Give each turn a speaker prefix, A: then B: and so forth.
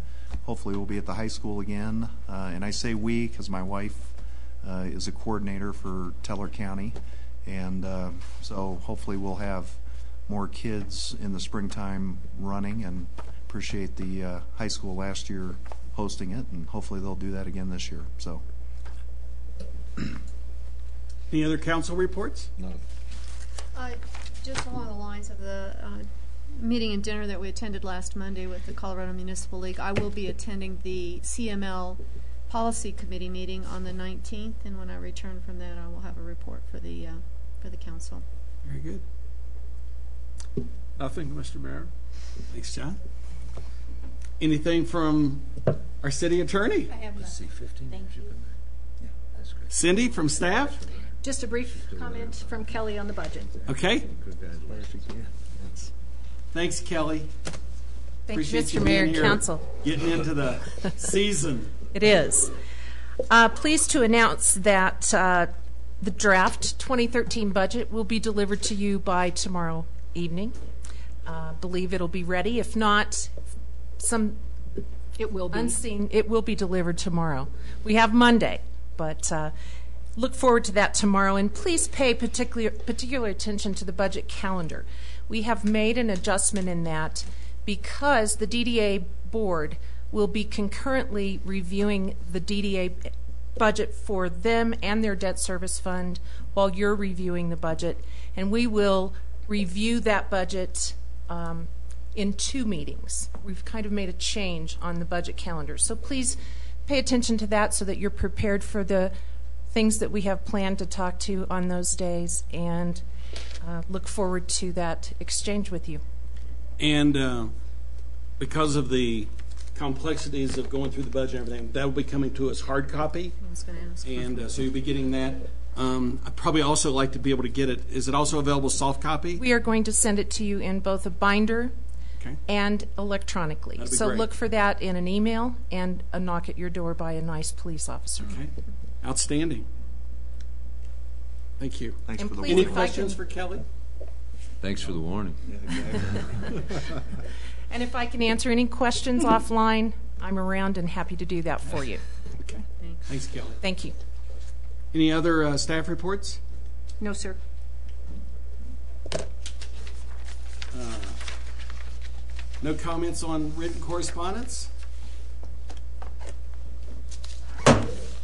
A: hopefully we'll be at the high school again. Uh, And I say "we" because my wife uh, is a coordinator for Teller County. And uh, so hopefully we'll have more kids in the springtime running and appreciate the uh, high school last year hosting it, and hopefully they'll do that again this year, so.
B: Any other council reports?
C: None.
D: Uh, Just along the lines of the uh, meeting and dinner that we attended last Monday with the Colorado Municipal League, I will be attending the CML Policy Committee meeting on the 19th, and when I return from that, I will have a report for the, uh, for the council.
B: Very good. Nothing, Mr. Mayor. Thanks, John. Anything from our city attorney?
E: I have
C: Let's
E: a-
C: see, 15
E: Thank
C: should
E: you.
C: come back. Yeah, that's great.
B: Cindy from staff?
E: just a brief comment from Kelly on the budget.
B: Okay.
C: Congratulations. Yeah.
B: Thanks, Kelly.
F: Thank you,
B: Appreciate you
F: Mr. Mayor
B: being
F: and
B: here.
F: Council.
B: Getting into the season.
F: It is. Uh, Pleased to announce that uh, the draft 2013 budget will be delivered to you by tomorrow evening. Uh, Believe it'll be ready. If not, some
E: It will be.
F: unseen, it will be delivered tomorrow. We have Monday, but uh, look forward to that tomorrow. And please pay particular, particular attention to the budget calendar. We have made an adjustment in that because the DDA board will be concurrently reviewing the DDA budget for them and their debt service fund while you're reviewing the budget. And we will review that budget um, in two meetings. We've kind of made a change on the budget calendar. So please pay attention to that so that you're prepared for the things that we have planned to talk to on those days and uh, look forward to that exchange with you.
B: And uh, because of the complexities of going through the budget and everything, that will be coming to us hard copy.
D: I was going to ask.
B: And uh, so you'll be getting that. Um, I'd probably also like to be able to get it. Is it also available soft copy?
F: We are going to send it to you in both a binder
B: Okay.
F: and electronically.
B: That'd be
F: so
B: great.
F: look for that in an email and a knock at your door by a nice police officer.
B: Okay. Outstanding. Thank you.
A: Thanks
F: And
A: for the
F: please-
B: Any
A: warning.
F: can-
B: questions for Kelly?
C: Thanks for the warning.
F: And if I can answer any questions offline, I'm around and happy to do that for you.
B: Okay. Thanks, Kelly.
F: Thank you.
B: Any other uh, staff reports?
E: No, sir.
B: Uh, No comments on written correspondence?